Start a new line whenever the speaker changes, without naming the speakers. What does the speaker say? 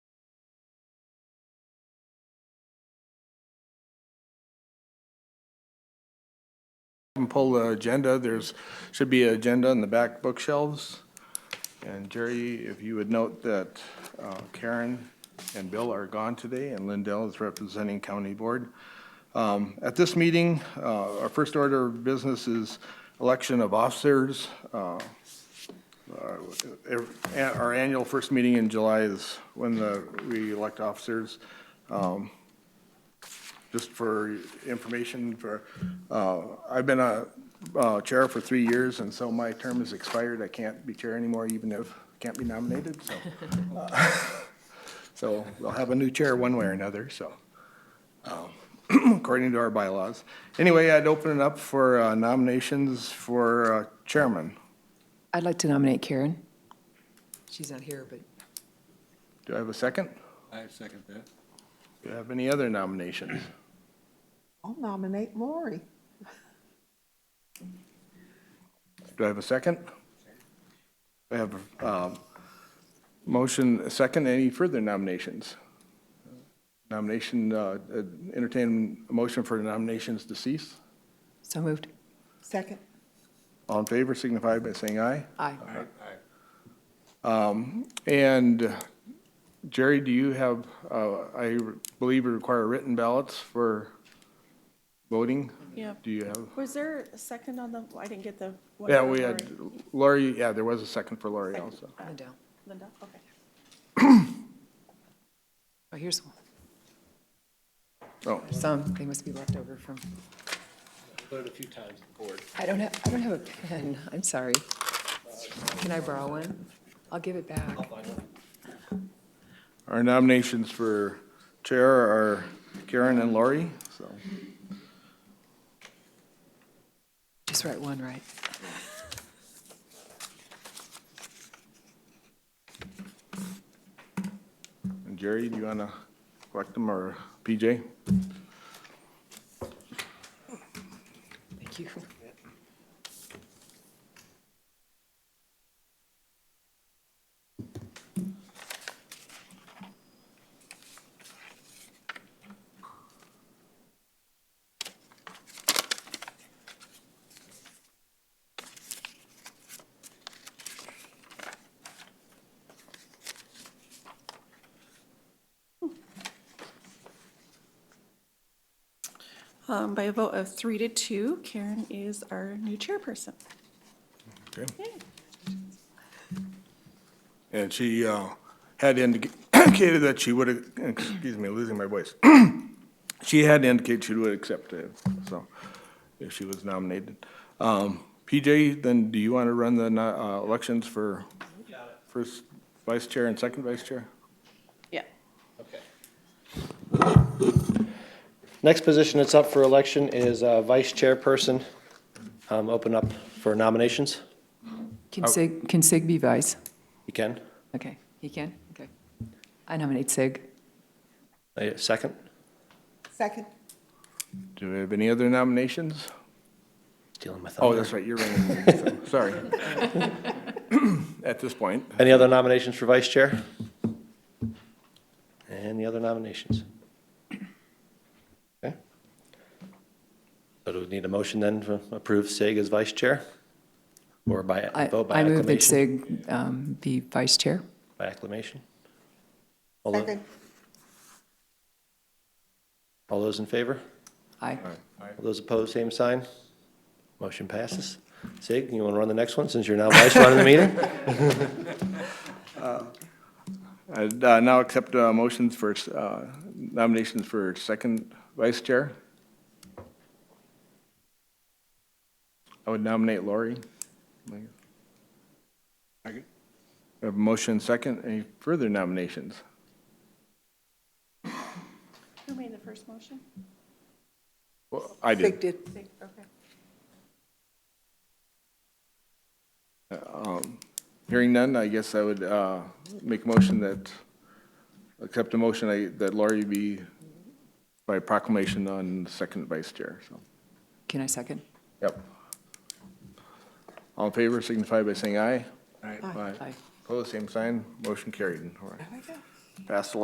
and pull the agenda. There's, should be an agenda in the back bookshelves. And Jerry, if you would note that uh, Karen and Bill are gone today, and Lindell is representing County Board. Um, At this meeting, uh, our first order of business is election of officers. Uh, ev- a- Our annual first meeting in July is when the, we elect officers. Um, Just for information, for, uh, I've been a uh, chair for three years, and so my term is expired. I can't be chair anymore, even if, can't be nominated, so. uh, So we'll have a new chair one way or another, so, um, according to our bylaws. Anyway, I'd open it up for uh, nominations for uh, chairman.
I'd like to nominate Karen. She's not here, but
Do I have a second?
I second that.
Do you have any other nominations?
I'll nominate Lori.
Do I have a second? I have a um, motion, a second. Any further nominations? Nomination, uh, entertain a motion for nominations to cease.
so moved.
Second.
All in favor signify by saying aye.
Aye.
And uh, Jerry, do you have, uh, I believe you require written ballots for voting?
Yep.
Do you have?
Was there a second on the, I didn't get the. one
Yeah,
for
we
Lori.
had Lori, yeah, there was a second for Lori
Second. Uh,
also.
Lindell.
Linda, okay.
Oh, here's one.
Oh,
Some, they must be left over from,
Voted a few times at the board.
I don't have, I don't have a pen. I'm sorry. Can I borrow one? I'll give it back.
our nominations for chair are Karen and Lori, so.
Just write one right.
And Jerry, do you want to collect them or PJ?
Thank you.
Um, By a vote of three to two, Karen is our new chairperson.
Okay.
Yay.
And she uh, had indicated that she would, excuse me, losing my voice. She had indicated she would accept it, so, if she was nominated. Um, PJ, then do you want to run the uh, elections for first vice chair and second vice chair?
Yeah.
Okay. Next position that's up for election is uh, vice chairperson. Um, Open up for nominations. Oh.
Can Sig, can Sig be vice?
You can.
Okay, he can? Okay. I nominate Sig.
A Uh, Second?
Second.
Do we have any other nominations?
Stealing my
Oh,
thunder.
that's right, you're running, sorry. At this point,
Any other nominations for vice chair? Any other nominations? Okay. So do we need a motion then to approve Sig as vice chair? Or by,
I,
vote by
I move that
acclamation?
Sig um, be vice chair.
By acclamation? All tho-
Second.
All those in favor?
Aye.
All those opposed, same sign? Motion passes. Sig, you want to run the next one since you're now vice running the meeting?
I'd uh, now accept uh, motions for uh, nominations for second vice chair. I would nominate Lori. We
Second.
have a motion second. Any further nominations?
Who made the first motion?
Well, I
Sig
did.
did.
Okay.
Hearing none, I guess I would uh, make a motion that, accept a motion I- that Lori be by proclamation on second vice chair, so.
Can I second?
Yep. All in favor signify by saying aye.
Aye.
Aye.
Aye.
Opposed, same sign, motion carried. All right.
There we go.
Passed